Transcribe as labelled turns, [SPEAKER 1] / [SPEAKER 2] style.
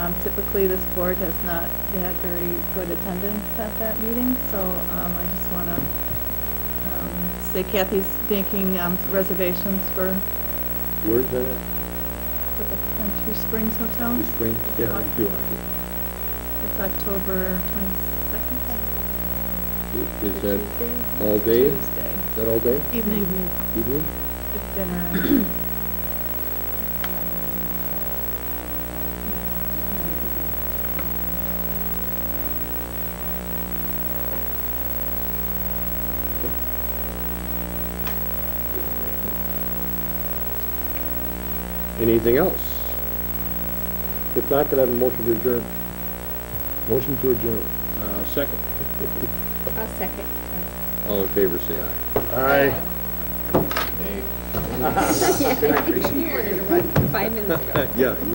[SPEAKER 1] Um, Typically, this board has not had very good attendance at that meeting, so um, I just want to say Kathy's making um, reservations for
[SPEAKER 2] Where's that at?
[SPEAKER 1] for the Country Springs Hotel.
[SPEAKER 2] The spring? Yeah, I do, I
[SPEAKER 1] It's October 22nd.
[SPEAKER 2] do. Is that all day? Is
[SPEAKER 1] Tuesday
[SPEAKER 2] that all day?
[SPEAKER 1] evening,
[SPEAKER 2] Evening?
[SPEAKER 1] with dinner. Um, and-
[SPEAKER 2] Anything else? If not, could I have a motion to adjourn? Motion to adjourn. Uh, second.
[SPEAKER 3] I'll second.
[SPEAKER 2] All in favor, say aye. Aye.
[SPEAKER 3] You wanted to run five minutes ago.
[SPEAKER 2] Yeah.